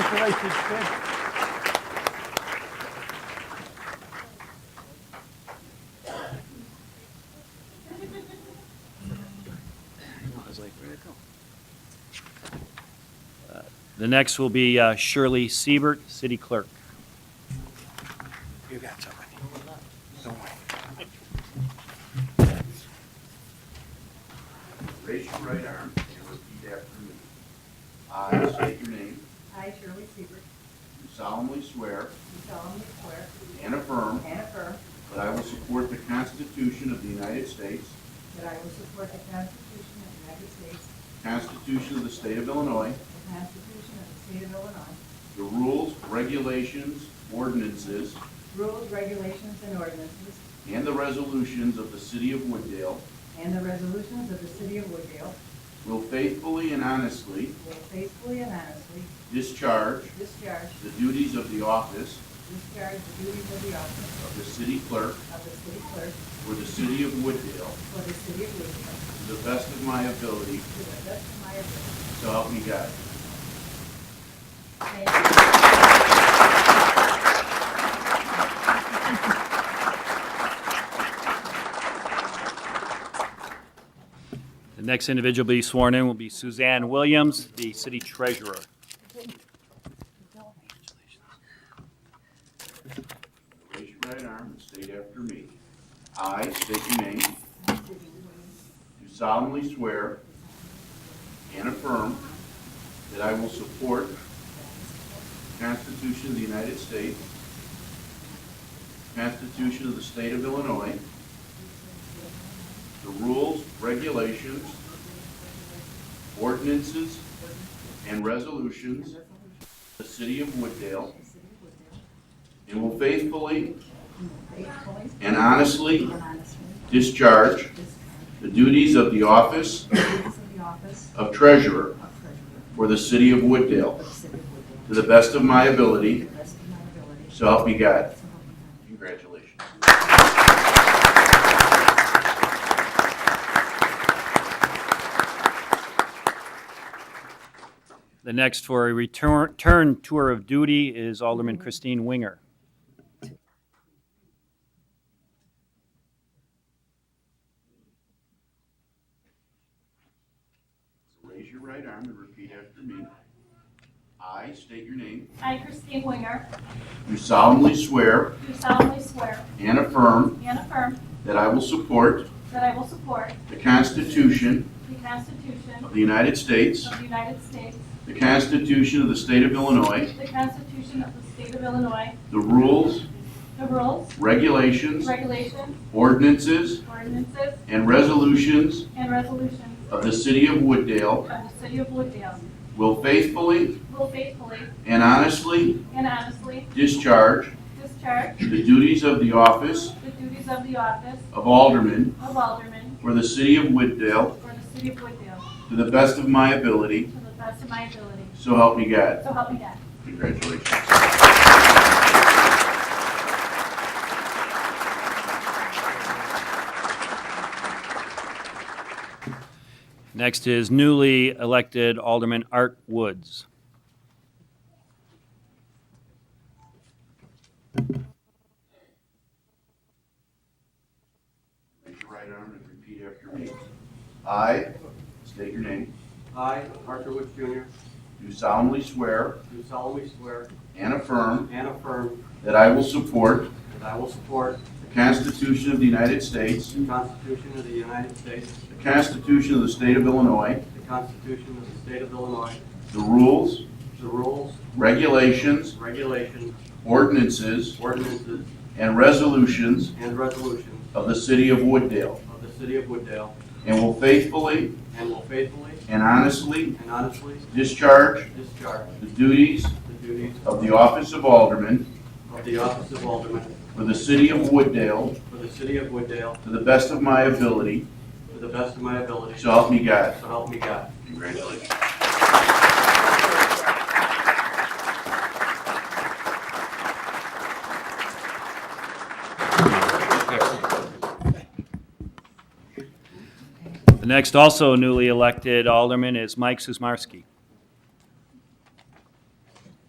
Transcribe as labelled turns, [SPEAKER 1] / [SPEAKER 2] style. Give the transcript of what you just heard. [SPEAKER 1] Decorated shed.
[SPEAKER 2] I was like, where'd it go? Uh, The next will be uh, Shirley Siebert, City Clerk.
[SPEAKER 1] You got somebody. Don't worry.
[SPEAKER 3] Raise your right arm and repeat after me. I state your name,
[SPEAKER 4] I, Shirley Seaver, do
[SPEAKER 3] do solemnly swear
[SPEAKER 4] solemnly swear
[SPEAKER 3] and affirm
[SPEAKER 4] and affirm
[SPEAKER 3] that I will support the Constitution of the United States,
[SPEAKER 4] that I will support the Constitution of the United States,
[SPEAKER 3] Constitution of the State of Illinois,
[SPEAKER 4] the Constitution of the State of Illinois,
[SPEAKER 3] the rules, regulations, ordinances,
[SPEAKER 4] rules, regulations, and ordinances,
[SPEAKER 3] and the resolutions of the City of Wooddale,
[SPEAKER 4] and the resolutions of the City of Woodville,
[SPEAKER 3] will faithfully and honestly
[SPEAKER 4] will faithfully and honestly
[SPEAKER 3] discharge
[SPEAKER 4] discharge,
[SPEAKER 3] the duties of the office
[SPEAKER 4] discharge the duties of the office
[SPEAKER 3] of the City Clerk
[SPEAKER 4] of the City Clerk
[SPEAKER 3] for the City of Wooddale
[SPEAKER 4] for the City of Woodville,
[SPEAKER 3] to the best of my ability,
[SPEAKER 4] to the best of my ability.
[SPEAKER 3] so help me God.
[SPEAKER 4] Thank you.
[SPEAKER 2] The next individual to be sworn in will be Suzanne Williams, the City Treasurer.
[SPEAKER 3] Raise your right arm and state after me. I state your name. Do solemnly swear and affirm that I will support the Constitution of the United States, the Constitution of the State of Illinois, the rules, regulations, ordinances, and resolutions of the City of Wooddale, and will faithfully
[SPEAKER 4] Faithfully
[SPEAKER 3] and honestly
[SPEAKER 4] and honestly
[SPEAKER 3] discharge
[SPEAKER 4] discharge
[SPEAKER 3] the duties of the office
[SPEAKER 4] the duties of the office
[SPEAKER 3] of treasurer
[SPEAKER 4] of Treasurer
[SPEAKER 3] for the city of Wooddale
[SPEAKER 4] of the City of Woodville.
[SPEAKER 3] to the best of my
[SPEAKER 4] To
[SPEAKER 3] ability,
[SPEAKER 4] the best of my ability.
[SPEAKER 3] so help me God.
[SPEAKER 4] So help me God.
[SPEAKER 3] Congratulations.
[SPEAKER 2] The next for a return turn tour of duty is Alderman Christine Winger.
[SPEAKER 3] Raise your right arm and repeat after me. I state your name.
[SPEAKER 5] I, Christine Winger,
[SPEAKER 3] Do solemnly swear
[SPEAKER 5] do solemnly swear
[SPEAKER 3] and affirm
[SPEAKER 5] and affirm
[SPEAKER 3] that I will support
[SPEAKER 5] that I will support
[SPEAKER 3] the Constitution
[SPEAKER 5] the Constitution
[SPEAKER 3] of the United States,
[SPEAKER 5] of the United States,
[SPEAKER 3] the Constitution of the State of Illinois,
[SPEAKER 5] the Constitution of the State of Illinois,
[SPEAKER 3] the rules,
[SPEAKER 5] the rules,
[SPEAKER 3] regulations,
[SPEAKER 5] regulations,
[SPEAKER 3] ordinances,
[SPEAKER 5] ordinances,
[SPEAKER 3] and resolutions
[SPEAKER 5] and resolutions
[SPEAKER 3] of the city of Wooddale,
[SPEAKER 5] of the City of Woodville,
[SPEAKER 3] will faithfully
[SPEAKER 5] will faithfully
[SPEAKER 3] And honestly
[SPEAKER 5] and honestly
[SPEAKER 3] discharge
[SPEAKER 5] discharge
[SPEAKER 3] the duties of the office
[SPEAKER 5] the duties of the office
[SPEAKER 3] of Alderman
[SPEAKER 5] of Alderman
[SPEAKER 3] for the city of Wooddale
[SPEAKER 5] for the City of Woodville
[SPEAKER 3] to the best of my ability,
[SPEAKER 5] to the best of my ability.
[SPEAKER 3] so help me God.
[SPEAKER 5] So help me God.
[SPEAKER 3] Congratulations.
[SPEAKER 2] Next is newly elected Alderman Art Woods.
[SPEAKER 3] Raise your right arm and repeat after me. I, state your name,
[SPEAKER 6] I, Arthur Woods Jr.,
[SPEAKER 3] do solemnly swear
[SPEAKER 6] do solemnly swear
[SPEAKER 3] and affirm
[SPEAKER 6] and affirm
[SPEAKER 3] that I will support
[SPEAKER 6] that I will support
[SPEAKER 3] the Constitution of the United States,
[SPEAKER 6] the Constitution of the United States,
[SPEAKER 3] the Constitution of the State of Illinois,
[SPEAKER 6] the Constitution of the State of Illinois,
[SPEAKER 3] the rules,
[SPEAKER 6] the rules,
[SPEAKER 3] regulations,
[SPEAKER 6] regulations,
[SPEAKER 3] ordinances,
[SPEAKER 6] ordinances,
[SPEAKER 3] and resolutions
[SPEAKER 6] and resolutions
[SPEAKER 3] of the city of Wooddale,
[SPEAKER 6] of the City of Wooddale,
[SPEAKER 3] and will faithfully
[SPEAKER 6] and will faithfully
[SPEAKER 3] and honestly
[SPEAKER 6] and honestly
[SPEAKER 3] discharge
[SPEAKER 6] discharge
[SPEAKER 3] the duties
[SPEAKER 6] the duties
[SPEAKER 3] of the office of Alderman
[SPEAKER 6] of the office of Alderman
[SPEAKER 3] for the city of Wooddale
[SPEAKER 6] for the City of Wooddale
[SPEAKER 3] to the best of my ability,
[SPEAKER 6] to the best of my ability,
[SPEAKER 3] so help me God.
[SPEAKER 6] so help me God.
[SPEAKER 3] Congratulations.
[SPEAKER 2] The next also newly elected Alderman is Mike Susmarski.